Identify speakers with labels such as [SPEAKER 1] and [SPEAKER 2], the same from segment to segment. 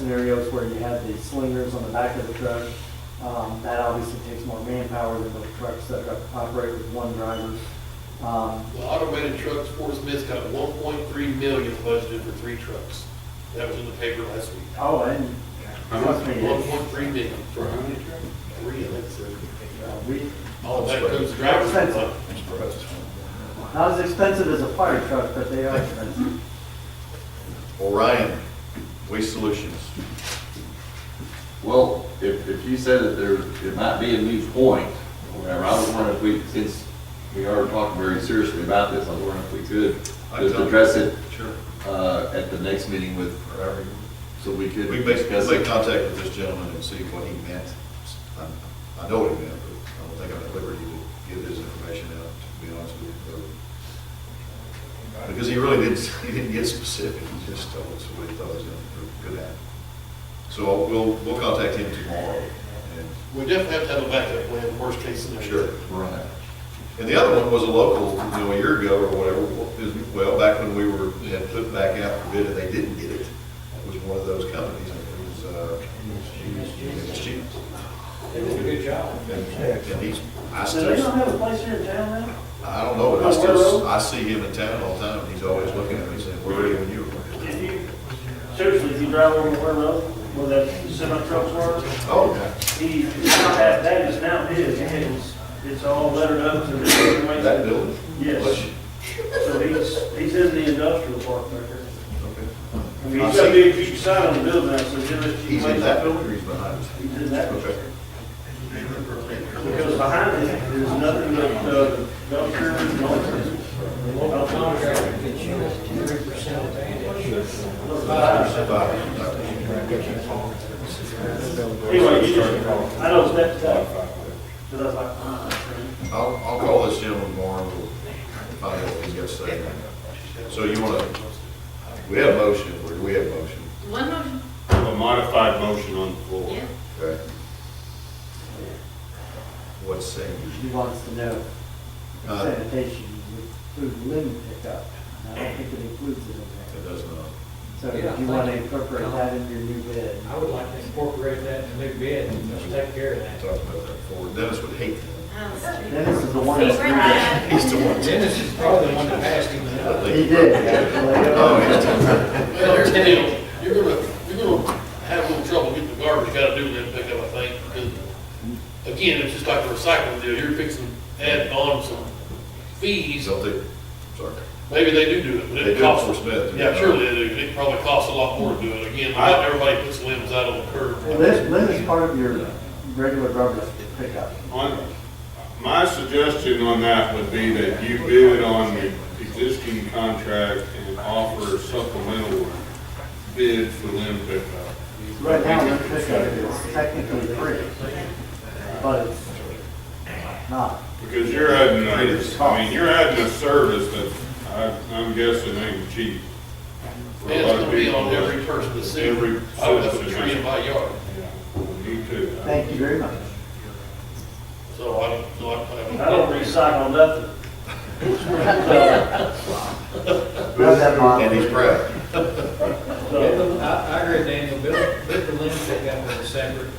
[SPEAKER 1] scenarios where you have the slingers on the back of the truck. Um, That obviously takes more manpower than the trucks that operate with one driver. Um,
[SPEAKER 2] The automated trucks, Fort Smith's got one point three million budgeted for three trucks. That was in the paper last week.
[SPEAKER 1] Oh, and trust me,
[SPEAKER 2] One
[SPEAKER 1] it's-
[SPEAKER 2] point three million. For how many trucks? Three, I think so.
[SPEAKER 1] uh, we,
[SPEAKER 2] All of that comes to driver's ed.
[SPEAKER 1] not as expensive as a fire truck, but they are expensive.
[SPEAKER 3] Orion, Waste Solutions.
[SPEAKER 4] Well, if, if you said that there, it might be a new point, or whatever, I was wondering if we, since we are talking very seriously about this, I was wondering if we could
[SPEAKER 3] I
[SPEAKER 4] just
[SPEAKER 3] don't-
[SPEAKER 4] address it,
[SPEAKER 3] Sure.
[SPEAKER 4] uh, at the next meeting with, uh, so we could
[SPEAKER 3] We
[SPEAKER 4] discuss
[SPEAKER 3] basically
[SPEAKER 4] it.
[SPEAKER 3] made contact with this gentleman and see what he meant. I- I know what he meant, but I don't think I'm at liberty to give his information out, to be honest with you. but- Because he really didn't, he didn't get specific, he just told us what he thought was going to happen. So we'll, we'll contact him tomorrow. and-
[SPEAKER 2] We definitely have to have a backup plan, worst case scenario.
[SPEAKER 4] Right.
[SPEAKER 3] And the other one was a local, you know, a year ago or whatever, is, well, back when we were, had put back out for bid and they didn't get it. It was one of those companies, it was, uh, it was cheap.
[SPEAKER 5] They did a good job.
[SPEAKER 3] And and he's, I
[SPEAKER 1] So they don't
[SPEAKER 3] still,
[SPEAKER 1] have a place here in town now?
[SPEAKER 3] I don't know, but I still, I see him in town all the time, and he's always looking at me saying, where are you when you were?
[SPEAKER 6] If you, seriously, if you drive over where Road, where that semi trucks were,
[SPEAKER 3] Oh,
[SPEAKER 6] he, it's not that, that is now his, it's, it's all lettered up to the different ways.
[SPEAKER 3] that building?
[SPEAKER 6] Yes, so he's, he's in the industrial park back there.
[SPEAKER 3] Okay.
[SPEAKER 6] I mean, he's got a big, huge sign on the building now, so he'll let you.
[SPEAKER 3] He's in that building or he's behind us?
[SPEAKER 6] He's in that,
[SPEAKER 3] Okay.
[SPEAKER 6] because behind it, there's nothing but, uh, dumpster and nonsense.
[SPEAKER 5] The local contractor gets you three percent of that. Uh,
[SPEAKER 3] Five.
[SPEAKER 6] Anyway, you just, I know it's that tough, but I was like, ah,
[SPEAKER 3] I'll, I'll call this gentleman tomorrow, and we'll find out what he's got to say. So you want to, we have motion, or we have motion,
[SPEAKER 7] One motion,
[SPEAKER 8] A modified motion on the floor.
[SPEAKER 7] yeah.
[SPEAKER 3] okay? What's saying?
[SPEAKER 1] She wants to know
[SPEAKER 3] Uh.
[SPEAKER 1] sanitation with food limit pickup. And I don't think it includes it in there.
[SPEAKER 3] It does not.
[SPEAKER 1] So
[SPEAKER 5] Yeah,
[SPEAKER 1] if you want to
[SPEAKER 5] thank you.
[SPEAKER 1] incorporate that into your new bid.
[SPEAKER 5] I would like to incorporate that in the new bid and just take care of
[SPEAKER 3] I
[SPEAKER 5] that.
[SPEAKER 3] talked about that before. Dennis would hate that.
[SPEAKER 7] Oh,
[SPEAKER 1] Dennis is the one
[SPEAKER 7] See,
[SPEAKER 1] that's
[SPEAKER 7] we're
[SPEAKER 1] doing
[SPEAKER 7] not-
[SPEAKER 3] He's the one.
[SPEAKER 5] Dennis is probably the one that passed him the
[SPEAKER 3] I
[SPEAKER 5] note.
[SPEAKER 1] it.
[SPEAKER 3] think
[SPEAKER 1] He did, uh, actually.
[SPEAKER 3] Oh, he's the
[SPEAKER 2] Well, here's the deal, you're gonna, you're gonna have a little trouble getting the garbage out of doing that pickup, I think, because, again, it's just like a recycling deal, you're fixing, adding on some
[SPEAKER 3] he's
[SPEAKER 2] fees,
[SPEAKER 3] on the, sorry.
[SPEAKER 2] maybe they do do it, but
[SPEAKER 3] They
[SPEAKER 2] it
[SPEAKER 3] do it
[SPEAKER 2] costs.
[SPEAKER 3] for Smith.
[SPEAKER 2] Yeah, surely they do, it probably costs a lot more to do it, again, not everybody puts limbs out on the curb.
[SPEAKER 1] Well, this, this is part of your regular garbage pickup.
[SPEAKER 8] On, my suggestion on that would be that you bid on the existing contract and offer a supplemental bid for limb pickup.
[SPEAKER 1] Right now, limit pickup is technically free, but it's not.
[SPEAKER 8] Because you're adding, a- I mean, you're adding a service that I, I'm guessing ain't cheap. for a
[SPEAKER 2] It's
[SPEAKER 8] lot of
[SPEAKER 2] gonna be
[SPEAKER 8] people.
[SPEAKER 2] on every person to see,
[SPEAKER 8] Every
[SPEAKER 2] I would have a
[SPEAKER 8] citizen.
[SPEAKER 2] tree in my yard,
[SPEAKER 8] Yeah, Me too.
[SPEAKER 1] Thank you very much.
[SPEAKER 2] so I don't, so I.
[SPEAKER 6] I don't recycle nothing.
[SPEAKER 1] Love that model.
[SPEAKER 3] And he's proud.
[SPEAKER 6] So,
[SPEAKER 5] I, I agree, Daniel, Bill, Bill Lynn picked up with a separate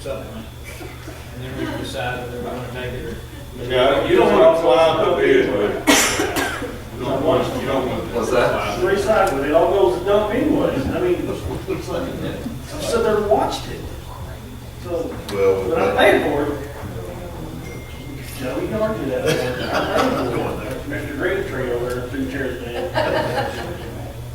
[SPEAKER 5] supplement. And then we decide whether we're gonna take it or.
[SPEAKER 8] Yeah, you don't want to cloud the bid, but you don't want, you don't want.
[SPEAKER 4] What's that?
[SPEAKER 6] recycle, it all goes to dump anyways, I mean, I sat there and watched it. So,
[SPEAKER 3] Well,
[SPEAKER 6] but I
[SPEAKER 3] but-
[SPEAKER 6] paid for it. No, we can argue that. I paid for it. Mr. Green Tree over there, two chairs down.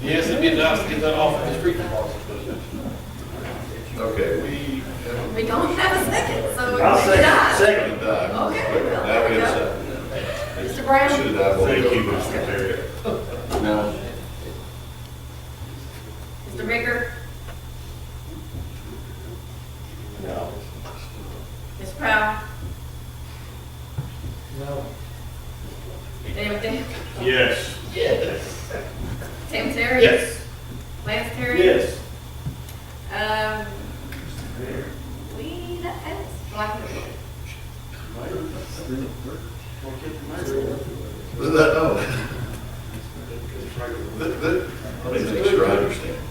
[SPEAKER 2] Yes, it'd be nice to get that off of the street department, but.
[SPEAKER 3] okay, we have
[SPEAKER 7] We don't have a second, so we
[SPEAKER 6] I'll
[SPEAKER 7] can
[SPEAKER 6] second,
[SPEAKER 7] die.
[SPEAKER 6] second.
[SPEAKER 3] a dive.
[SPEAKER 7] Okay, well,
[SPEAKER 3] Now we
[SPEAKER 7] there you
[SPEAKER 3] have
[SPEAKER 7] go.
[SPEAKER 3] a
[SPEAKER 7] Mr.
[SPEAKER 3] second.
[SPEAKER 7] Brown?
[SPEAKER 3] Should have dived. over.
[SPEAKER 8] Mr. Perry.
[SPEAKER 4] Now,
[SPEAKER 7] Mr. Baker? No. Ms. Powell?
[SPEAKER 5] No.
[SPEAKER 7] Daniel Day?
[SPEAKER 8] Yes.
[SPEAKER 7] Tim Terry?
[SPEAKER 2] Yes.
[SPEAKER 7] Lance Terry?
[SPEAKER 6] Yes,
[SPEAKER 7] Um, we, that is, black and white.
[SPEAKER 3] Isn't that, oh. That- that- Let me make sure I understand.